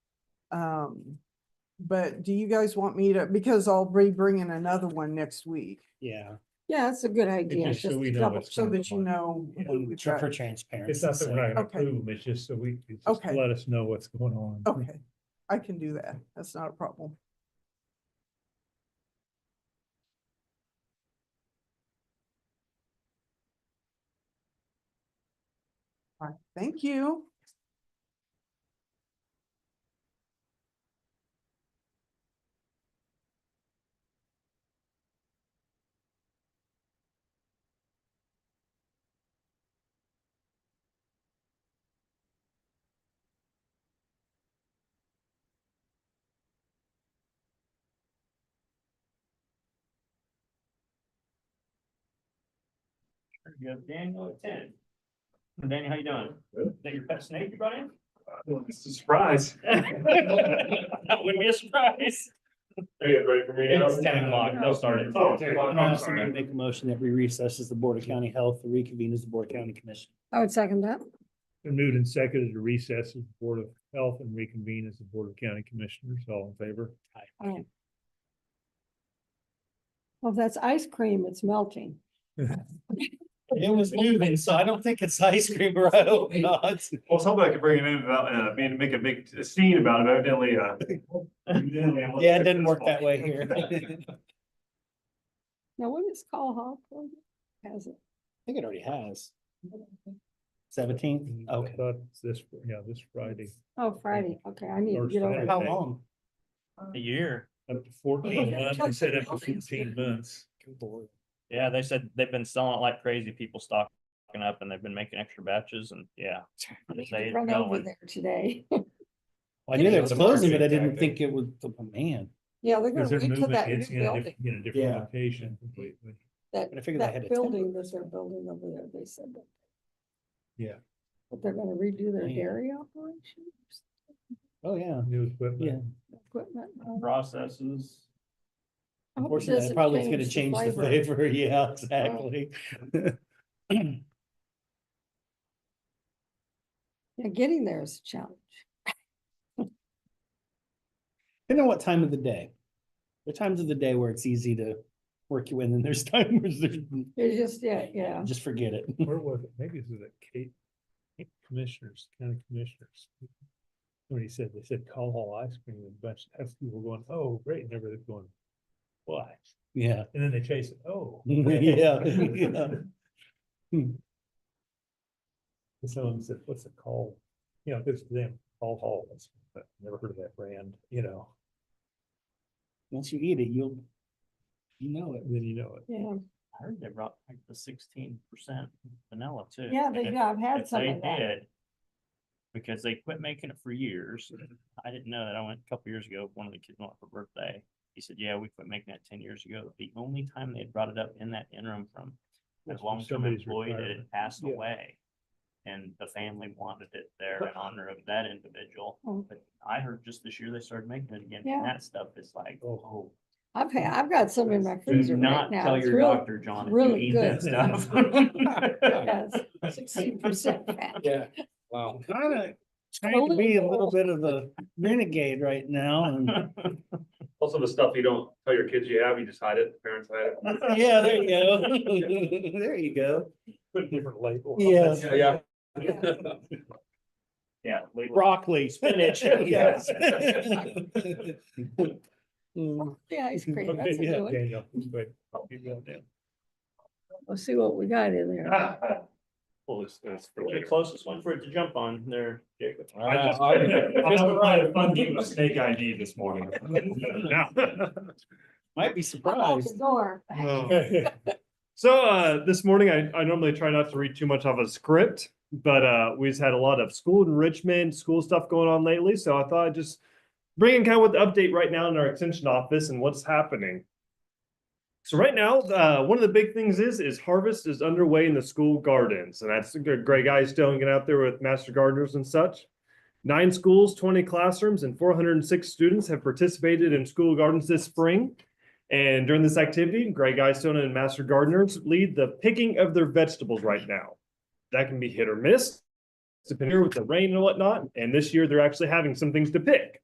Um, but do you guys want me to, because I'll be bringing another one next week. Yeah, Yeah, that's a good idea. just so just we know double- what's So Sounds that you fine. know. who and we've tr- for got. transparency. It's not that we're not gonna Okay. approve them, it's just so we, you just Okay. let us know what's going on. Okay, I can do that. That's not a problem. All right, thank you. You have Daniel at ten. Daniel, how you doing? Is that your pet snake you brought in? It's a surprise. That would be a surprise. Are you ready for me? It's ten o'clock, they'll start it. Oh, 10 o'clock, I'm sorry. Make a motion that we recess as the Board of County Health, reconvene as the Board of County Commission. I would second that. Been moved and seconded to recess as the Board of Health and reconvene as the Board of County Commissioners, all in favor? Alright. Well, if that's ice cream, it's melting. It was moving, so I don't think it's ice cream, or I hope not. Well, somebody could bring it in about, uh, being, make a big scene about it, but evidently, uh. evidently I'm- Yeah, it didn't work that way here. I think Now, what is Call Hawk? Has it? it already has. Seventeenth, I okay. thought This, yeah, this Friday, Oh, Friday. Okay, I need to Or get over Saturday. that. How long? A year. up to fourteen months, I said up to fifteen months. Yeah, they said they've been selling it like crazy. People stocking up and they've been making extra batches and yeah. I need Say to it's Run over going. there today. I knew they were It's a closing, but I perfect didn't tactic. think it would, oh, man. Yeah, they're Because gonna they're wait till moving, that it's new in a, diff- building, in a Yeah. different location completely. that, But I figured they had a that building that they're building over there. They said that. Yeah. But they're gonna redo their Man. dairy operation, Oh, yeah. New equipment. equipment. I hope it Processes. Unfortunately, that doesn't probably is gonna change the flavor. Yeah, Well- exactly. Yeah, getting there is a challenge. Depending on what time of the day. There are times of the day where it's easy to work you in, and there's times where there's- It's just, yeah, yeah. just forget it. Where was it? Maybe it was at Kate, Commissioners, County Commissioners. When he said, they said call all ice cream and bunch, that's people going, oh, great, and everybody's going, why? Yeah. And then they chase it, oh. Yeah, yeah. Hmm. And Someone said, what's it called? You know, it's them, all halls, but never heard of that brand, you know, Once you eat it, you'll, you know it. then you know it. Yeah, I heard they brought like the sixteen percent vanilla too. yeah, they, And do. I've had if some they of that. did, Because they quit making it for years. I didn't know that. I went a couple years ago, one of the kids went for birthday. He said, yeah, we quit making that ten years ago. The only time they had brought it up in that interim from a That's from long-term somebody's employee that retirement. had passed Yeah. away. And the family wanted it there in honor of that individual. Oh. But I heard just this year they started making it again, Yeah. and that stuff is like, oh, I've had, I've got some in my freezer do right not now. tell It's your real, doctor, John, if you really eat that stuff. sixteen percent fat. Yeah, wow. Kinda trying to be a little bit of a renegade right now. and- Also the stuff you don't tell your kids you have, you just hide it, parents hide it. Yeah, there you go. There you go. Put a different label. on it. Yeah. Yeah. Yeah. label Broccoli, spinach. Yes. Mm, The ice cream, Okay, that's a yeah, good one. Daniel, but I'll keep going down. We'll see what we got in there. Well, uh, it's, it's for The later. closest one for it to jump on there, Jacob. I just, I just tried a fun game of snake ID this morning. Might be I'm out the surprised. door. So uh, this morning, I, I normally try not to read too much of a script, but uh, we've had a lot of school enrichment, school stuff going on lately. So I thought I'd just bring in kind of what the update right now in our extension office and what's happening. So right now, uh, one of the big things is is harvest is underway in the school gardens, and that's Greg Eystone getting out there with master gardeners and such. Nine schools, twenty classrooms, and four hundred and six students have participated in school gardens this spring. And during this activity, Greg Eystone and Master Gardeners lead the picking of their vegetables right now. That can be hit or miss, depending with the rain and whatnot. And this year, they're actually having some things to pick.